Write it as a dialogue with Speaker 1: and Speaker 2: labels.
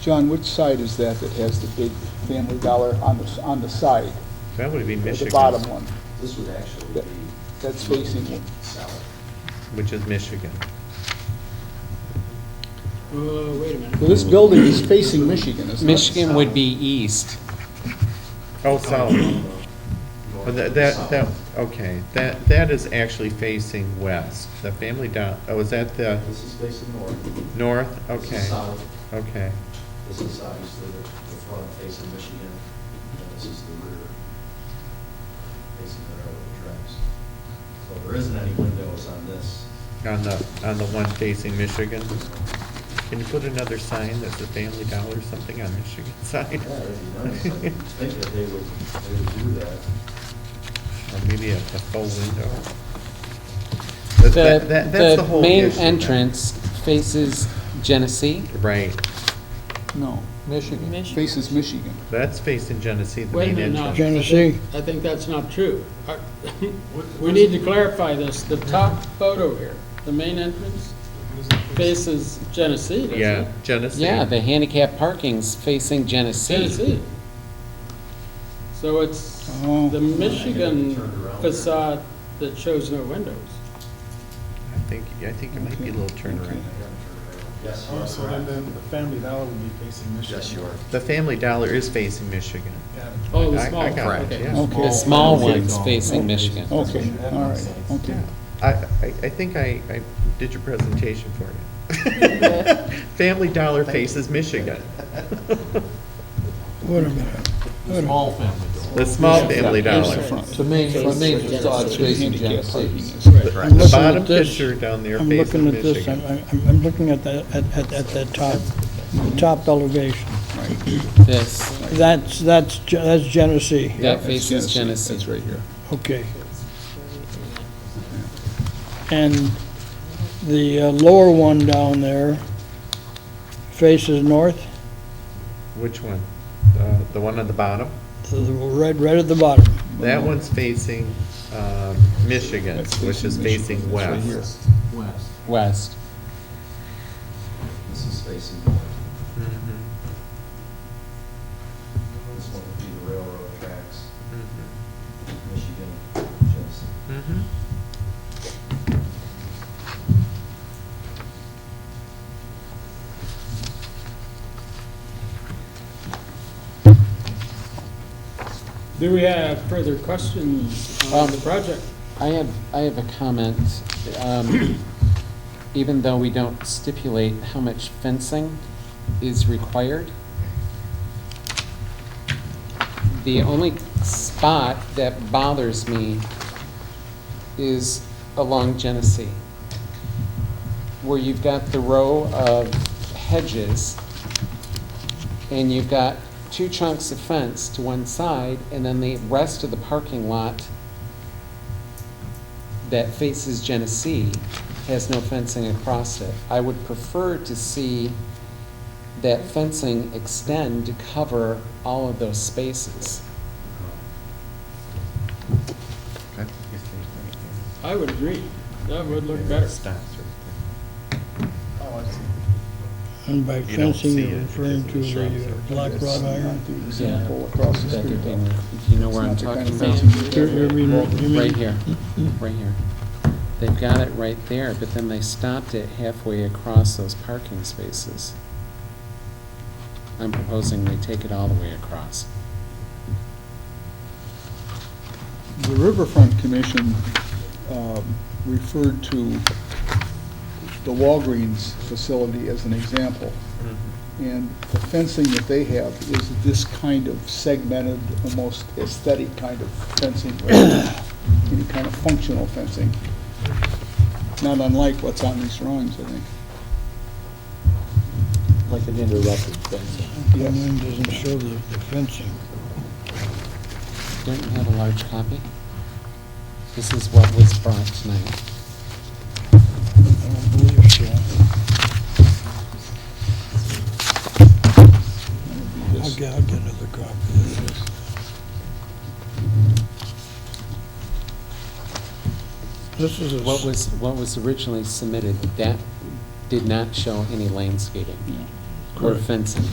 Speaker 1: John, which side is that that has the big Family Dollar on the, s- on the side?
Speaker 2: That would be
Speaker 1: The
Speaker 2: Michigan,
Speaker 1: bottom one,
Speaker 3: This would actually
Speaker 1: That-
Speaker 3: be
Speaker 1: that's facing,
Speaker 3: south.
Speaker 2: which is Michigan.
Speaker 4: Uh, wait a minute.
Speaker 1: well, this building is facing Michigan, isn't it?
Speaker 5: Michigan would be east.
Speaker 2: Oh, south. Oh, That, that, that- okay, that, that is actually facing west. The family down, oh, is that the
Speaker 3: This is facing north.
Speaker 2: north?
Speaker 3: This is
Speaker 2: Okay,
Speaker 3: south.
Speaker 2: okay.
Speaker 3: This is obviously the the front facing Michigan, and this is the rear facing the railroad tracks. So there isn't any windows on this.
Speaker 2: On the, on the one facing Michigan. Can you put another sign that's a Family Dollar or something on Michigan side?
Speaker 3: Yeah, that'd be nice. I think that they would, they would do that.
Speaker 2: Or maybe a, a full window. That- that- that- that's
Speaker 5: The
Speaker 2: whole
Speaker 5: main
Speaker 2: issue then.
Speaker 5: entrance faces Genesee.
Speaker 2: Right,
Speaker 1: No, Michigan,
Speaker 6: Michigan.
Speaker 1: faces Michigan.
Speaker 2: that's facing Genesee, the
Speaker 4: Wait a
Speaker 2: main
Speaker 4: minute now.
Speaker 2: entrance.
Speaker 4: Genesee. I think that's not true. Uh, We need to clarify this. The top photo here, the main entrance faces Genesee, doesn't it?
Speaker 2: Yeah, Genesee.
Speaker 5: Yeah, the handicap parking's facing Genesee.
Speaker 4: Genesee. So it's
Speaker 1: Oh.
Speaker 4: the Michigan
Speaker 3: Turned around.
Speaker 4: facade that shows no windows.
Speaker 2: I think, I think it might be a little turnaround.
Speaker 3: Yes, you
Speaker 7: Oh, so
Speaker 3: are
Speaker 7: then
Speaker 3: correct.
Speaker 7: the, the Family Dollar would be facing Michigan.
Speaker 3: Yes, you are.
Speaker 2: The Family Dollar is facing Michigan.
Speaker 7: Yeah.
Speaker 4: Oh, the
Speaker 2: I- I
Speaker 4: small,
Speaker 2: got it,
Speaker 4: okay.
Speaker 2: yeah.
Speaker 1: Okay.
Speaker 5: The small
Speaker 1: Oh, Okay.
Speaker 5: one's facing Michigan.
Speaker 1: Okay, all right, okay.
Speaker 2: I, I, I think I, I did your presentation for you. Family Dollar faces Michigan.
Speaker 1: Wait a minute.
Speaker 8: Small family
Speaker 2: The small Family
Speaker 1: There's
Speaker 2: Dollar.
Speaker 1: the front.
Speaker 8: The main, the main facade's facing
Speaker 1: Handicap parking
Speaker 8: Genesee.
Speaker 1: is-
Speaker 9: I'm
Speaker 2: The
Speaker 9: looking
Speaker 2: bottom
Speaker 9: at this.
Speaker 2: picture down there
Speaker 9: I'm looking
Speaker 2: facing
Speaker 9: at this, I'm,
Speaker 2: Michigan.
Speaker 9: I'm, I'm looking at the, at, at, at that top, top elevation.
Speaker 5: This,
Speaker 9: That's, that's, Ge- that's Genesee,
Speaker 1: Yeah,
Speaker 5: that
Speaker 1: that's
Speaker 5: faces Genesee.
Speaker 1: That's right here.
Speaker 9: okay. And the uh, lower one down there faces north,
Speaker 2: Which one? Uh, The one on the bottom?
Speaker 9: the- the red, right at the bottom.
Speaker 2: That one's facing um, Michigan,
Speaker 1: That's
Speaker 2: which is
Speaker 1: Michigan.
Speaker 2: facing
Speaker 1: That's right
Speaker 2: west.
Speaker 8: West.
Speaker 5: west.
Speaker 3: This is facing north.
Speaker 2: Mm-hmm.
Speaker 3: This one would be the railroad tracks, Michigan, Genesee.
Speaker 2: Mhm.
Speaker 4: Do we have further questions on
Speaker 5: Um,
Speaker 4: the project?
Speaker 5: I have, I have a comment. Um, Even though we don't stipulate how much fencing is required, the only spot that bothers me is along Genesee, where you've got the row of hedges, and you've got two chunks of fence to one side, and then the rest of the parking lot that faces Genesee has no fencing across it. I would prefer to see that fencing extend to cover all of those spaces.
Speaker 4: I would agree. That would look better.
Speaker 2: Stops right
Speaker 7: Oh, I see.
Speaker 9: And by
Speaker 2: You don't
Speaker 9: fencing,
Speaker 2: see
Speaker 9: you're
Speaker 2: it
Speaker 9: referring
Speaker 2: because
Speaker 9: to
Speaker 2: of the shrubs
Speaker 9: the uh,
Speaker 2: or-
Speaker 9: black
Speaker 1: That's
Speaker 9: wrought iron?
Speaker 1: not the Example across the
Speaker 5: That
Speaker 1: street.
Speaker 5: would be
Speaker 1: though.
Speaker 5: more- if You know where I'm
Speaker 1: It's not the
Speaker 5: talking
Speaker 1: kind of
Speaker 5: about?
Speaker 1: fencing
Speaker 9: You're, you're reading, you mean?
Speaker 5: Right here, right here. They've got it right there, but then they stopped it halfway across those parking spaces. I'm proposing they take it all the way across.
Speaker 1: The Riverfront Commission um, referred to the Walgreens facility as an example. And the fencing that they have is this kind of segmented, almost aesthetic kind of fencing, or any kind of functional fencing. Not unlike what's on these drawings, I think.
Speaker 8: Like an interrupted fence.
Speaker 9: The one doesn't show the the fencing.
Speaker 5: Don't you have a large copy? This is what was brought tonight.
Speaker 9: I don't believe so. I'll get, I'll get another copy of this. This is a,
Speaker 5: What
Speaker 9: s-
Speaker 5: was, what was originally submitted, that did not show any landscaping or fencing.